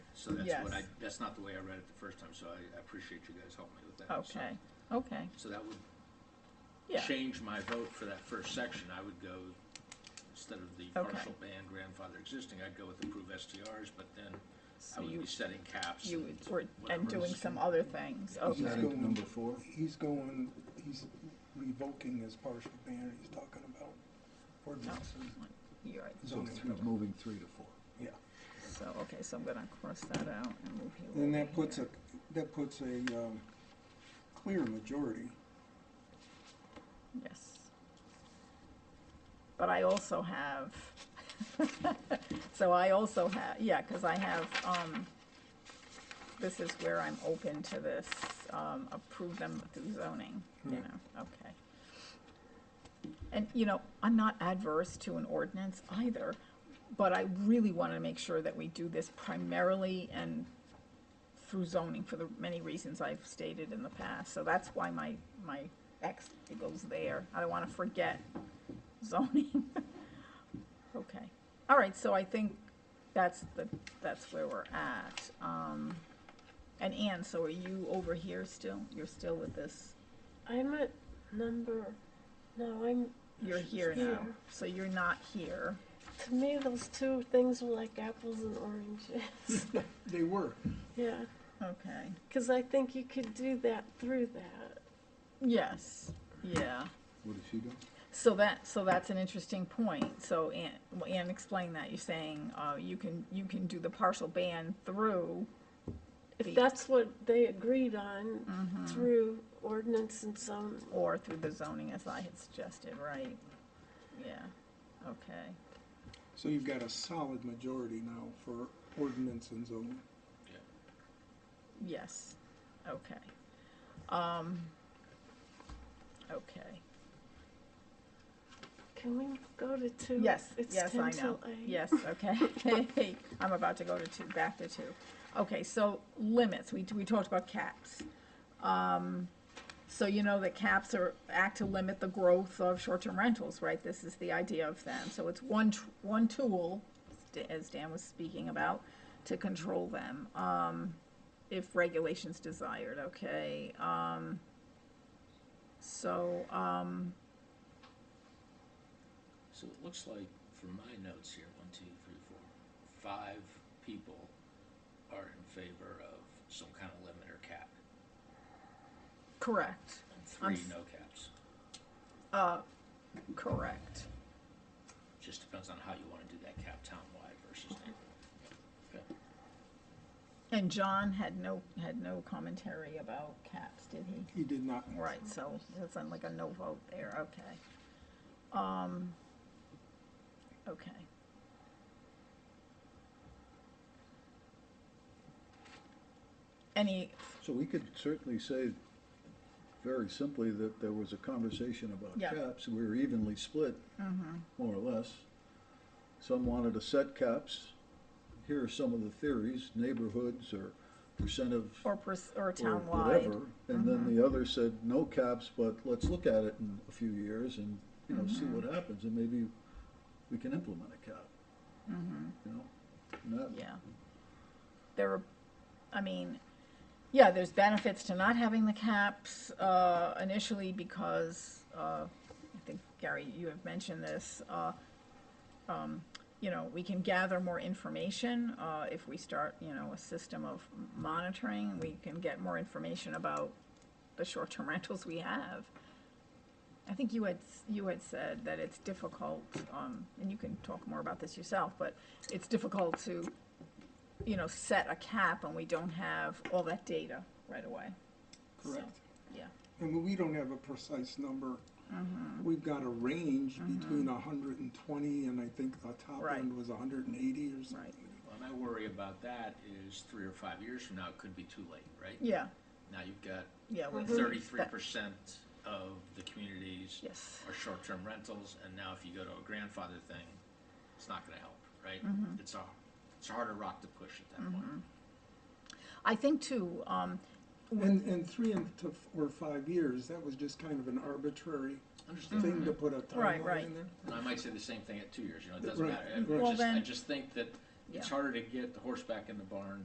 So that's Yes. what I, that's not the way I read it the first time, so I I appreciate you guys helping me with that. So- Okay, okay, So that would yeah, change my vote for that first section. I would go, instead of the Okay. partial ban grandfather existing, I'd go with approve STRs, but then I so would you, be setting caps. you and would- were, and whatever. doing some other things, okay. Adding to going- number four? He's going, he's revoking his partial ban he's talking about ordinances. You're right, So Zoning. three, moving three to four. Yeah. so, okay, so I'm gonna cross that out and move you over And that puts a, here. that puts a, um, clear majority. Yes. But I also have, so I also have, yeah, because I have, um, this is where I'm open to this, um, approve them through zoning, you Right. know, okay. And, you know, I'm not adverse to an ordinance either, but I really want to make sure that we do this primarily and through zoning for the many reasons I've stated in the past. So that's why my, my X goes there. I don't want to forget zoning. Okay. All right, so I think that's the, that's where we're at. Um, and Ann, so are you over here still? You're still with this, I'm at number. No, I'm. you're here now, Here. so you're not here. To me, those two things were like apples and oranges. They were. yeah, Okay. because I think you could do that through that. Yes, yeah. What did she do? So that, so that's an interesting point. So Ann, well, Ann explained that. You're saying, uh, you can, you can do the partial ban through, If Be- that's what they agreed on through ordinance and zoning. or through the zoning as I had suggested, right? Yeah, okay. So you've got a solid majority now for ordinance and zoning. Yes, okay. Um, okay, Can we go to two? yes, it's yes, 10 I know, till eight. yes, okay. I'm about to go to two, back to two. Okay, so limits, we, we talked about caps. Um, so you know that caps are, act to limit the growth of short-term rentals, right? This is the idea of them, so it's one, tr- one tool, st- as Dan was speaking about, to control them, um, if regulations desired, okay? Um, so, um, So it looks like, from my notes here, one, two, three, four, five people are in favor of some kind of limit or cap, correct. and I'm three f- no caps. Uh, correct. Just depends on how you wanna do that cap townwide versus neighborhood. Okay. And John had no, had no commentary about caps, did he? He did not. Right, so that's on like a no vote there, okay. Um, okay. Any, So we could certainly say very simply that there was a conversation about Yeah. Mm-hmm. caps. We were evenly split, more or less. Some wanted to set caps. Here are some of the theories, neighborhoods or percent of or, pers- or or townwide, Mm-hmm. whatever. And then the other said, no caps, but let's look at it in a few years and, you know, Mm-hmm. see what happens and maybe we can implement a cap. Mm-hmm. You know? And that- yeah. There are, I mean, yeah, there's benefits to not having the caps, uh, initially because, uh, I think, Gary, you have mentioned this, uh, um, you know, we can gather more information, uh, if we start, you know, a system of monitoring, we can get more information about the short-term rentals we have. I think you had, s- you had said that it's difficult, um, and you can talk more about this yourself, but it's difficult to, you know, set a cap when we don't have all that data right away. So, Correct. Yeah. And we don't have a precise number. We've got a range between hundred and twenty and I think the top Right. end was hundred and eighty or something. Right. Well, my worry about that is three or five years from now, it could be too late, right? Yeah, Now you've got yeah. we- Mm-hmm. thirty-three percent of the communities Yes, are short-term rentals, and now if you go to a grandfather thing, it's not gonna help, right? Mm-hmm. It's a, it's a harder rock to push at that point. I think too, um, And, and three and to, f- or five years, that was just kind of an arbitrary Understand? thing to put a Mm-hmm. Right, timeline right. in there. And I might say the same thing at two years, you know, it doesn't Right, matter. I right. Well, just, I then- just think that it's Yeah. harder to get the horse back in the barn